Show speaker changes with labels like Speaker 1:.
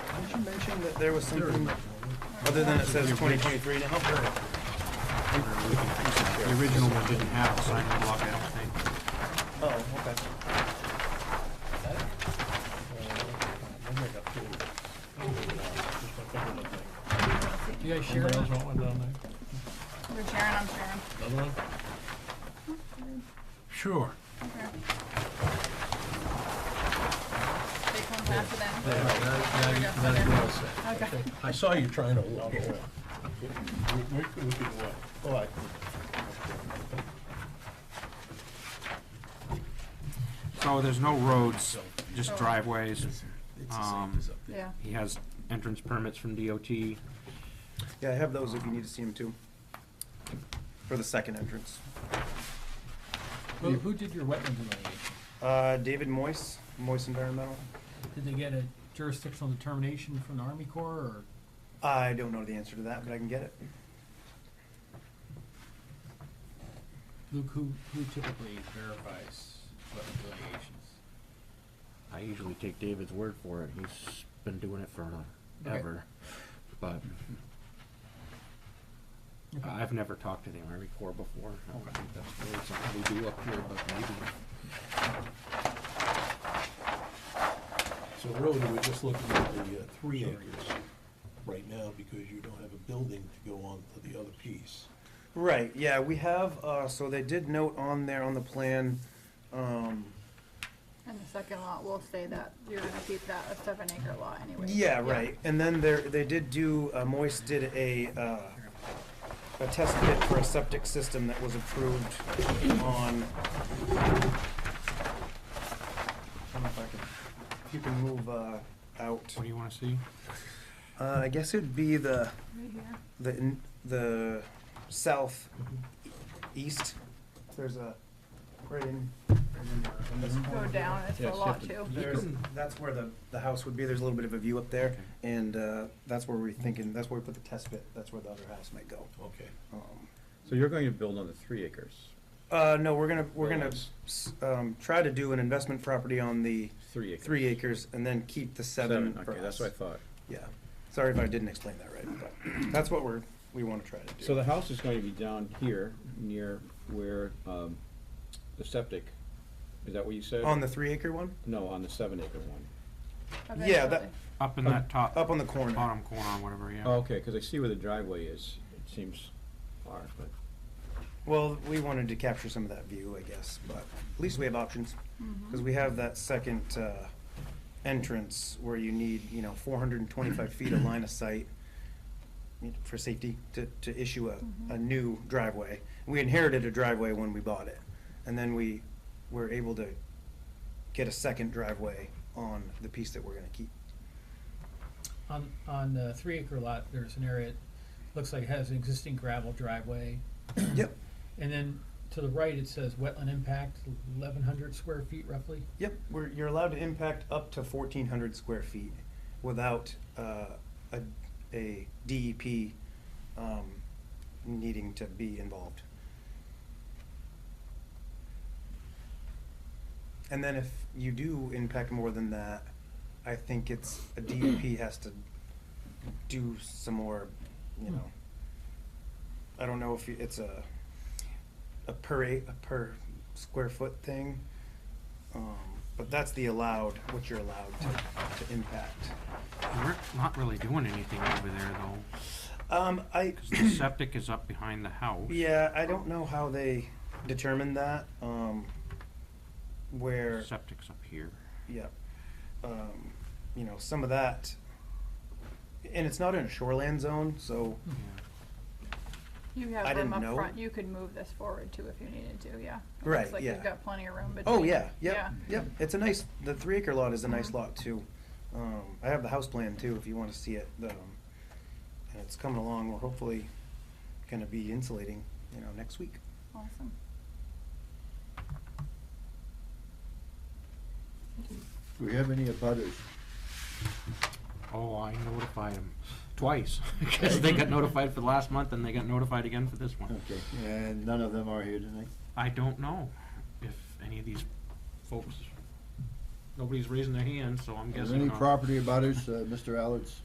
Speaker 1: you mention that there was something, other than it says twenty twenty-three now?
Speaker 2: The original one didn't have a sign and block, I don't think.
Speaker 1: Oh, okay.
Speaker 3: You guys share that?
Speaker 4: We're sharing, I'm sharing.
Speaker 2: Sure.
Speaker 4: Okay. They come after them. Okay.
Speaker 5: I saw you trying to walk away. Oh, I-
Speaker 2: So there's no roads, just driveways. Um,
Speaker 4: Yeah.
Speaker 2: He has entrance permits from DOT.
Speaker 1: Yeah, I have those if you need to see them too. For the second entrance.
Speaker 3: Who, who did your wetland delineation?
Speaker 1: Uh, David Moise, Moise Environmental.
Speaker 3: Did they get a jurisdictional determination from the Army Corps or?
Speaker 1: I don't know the answer to that, but I can get it.
Speaker 3: Luke, who, who typically verifies wetland delineations?
Speaker 6: I usually take David's word for it. He's been doing it for
Speaker 3: Okay.
Speaker 6: ever. But I've never talked to the Army Corps before. I don't think that's really something we do up here, but maybe.
Speaker 5: So really, we're just looking at the uh, three acres right now because you don't have a building to go on to the other piece.
Speaker 1: Right, yeah, we have, uh, so they did note on there on the plan, um,
Speaker 4: And the second lot will say that you're gonna keep that a seven acre lot anyway.
Speaker 1: Yeah, right, and then there, they did do, uh, Moist did a, uh, a test pit for a septic system that was approved on. I don't know if I can, if you can move, uh, out,
Speaker 2: What do you wanna see?
Speaker 1: uh, I guess it'd be the,
Speaker 4: Right here.
Speaker 1: the, n- the south east, there's a, right in, right in, uh, in this
Speaker 4: Go
Speaker 1: corner.
Speaker 4: down, it's
Speaker 6: Yeah,
Speaker 4: a
Speaker 6: so you
Speaker 4: lot
Speaker 6: have to-
Speaker 4: too.
Speaker 1: There's, that's where the, the house would be, there's a little bit of a view up there, and, uh, that's where we're thinking, that's where we put the test pit, that's where the other house might go.
Speaker 5: Okay.
Speaker 1: Um,
Speaker 7: So you're going to build on the three acres,
Speaker 1: Uh, no, we're gonna, we're gonna,
Speaker 7: Yes.
Speaker 1: s- um, try to do an investment property on the
Speaker 7: three acres?
Speaker 1: three acres and then keep the seven for
Speaker 7: Okay, that's what I
Speaker 1: us.
Speaker 7: thought.
Speaker 1: Yeah, sorry if I didn't explain that right, but that's what we're, we wanna try to do.
Speaker 7: So the house is going to be down here, near where, um, the septic, is that what you said?
Speaker 1: On the three acre one?
Speaker 7: No, on the seven acre one.
Speaker 1: Yeah, that,
Speaker 4: Eventually.
Speaker 2: Up in that top,
Speaker 1: up on the corner.
Speaker 2: bottom corner, or whatever, yeah.
Speaker 7: Oh, okay, cause I see where the driveway is, it seems far, but,
Speaker 1: Well, we wanted to capture some of that view, I guess, but at least we have options.
Speaker 4: Mhm.
Speaker 1: Because we have that second uh, entrance where you need, you know, four hundred and twenty-five feet of line of sight for safety to, to issue a, a new driveway. We inherited a driveway when we bought it, and then we were able to get a second driveway on the piece that we're gonna keep.
Speaker 3: On, on the three acre lot, there's an area, it looks like it has an existing gravel driveway.
Speaker 1: Yep,
Speaker 3: And then to the right, it says wetland impact, eleven hundred square feet roughly.
Speaker 1: yep, we're, you're allowed to impact up to fourteen hundred square feet without uh, a, a DEP um, needing to be involved. And then if you do impact more than that, I think it's, a DEP has to do some more, you know. I don't know if you- it's a, a per eight, a per square foot thing. Um, but that's the allowed, what you're allowed to, to impact.
Speaker 2: We're not really doing anything over there though,
Speaker 1: Um, I,
Speaker 2: 'cause the septic is up behind the house.
Speaker 1: yeah, I don't know how they determined that, um, where.
Speaker 2: Septic's up here.
Speaker 1: Yeah. Um, you know, some of that, and it's not in a shoreland zone, so,
Speaker 2: Yeah.
Speaker 4: You
Speaker 1: I
Speaker 4: have room
Speaker 1: didn't know.
Speaker 4: up front, you could move this forward too if you needed to, yeah. It looks
Speaker 1: Right,
Speaker 4: like
Speaker 1: yeah.
Speaker 4: You've got plenty of room between.
Speaker 1: oh, yeah,
Speaker 4: Yeah.
Speaker 1: yep, yep. It's a nice, the three acre lot is a nice lot too. Um, I have the house plan too, if you wanna see it, um, and it's coming along, we're hopefully gonna be insulating, you know, next week.
Speaker 4: Awesome.
Speaker 8: Do we have any abutters?
Speaker 2: Oh, I notified them twice, because they got notified for the last month and they got notified again for this one.
Speaker 8: Okay, and none of them are here tonight?
Speaker 2: I don't know if any of these folks, nobody's raising their hand, so I'm
Speaker 8: Is
Speaker 2: guessing
Speaker 8: there any
Speaker 2: not.
Speaker 8: property abutters, uh, Mr. Allard's?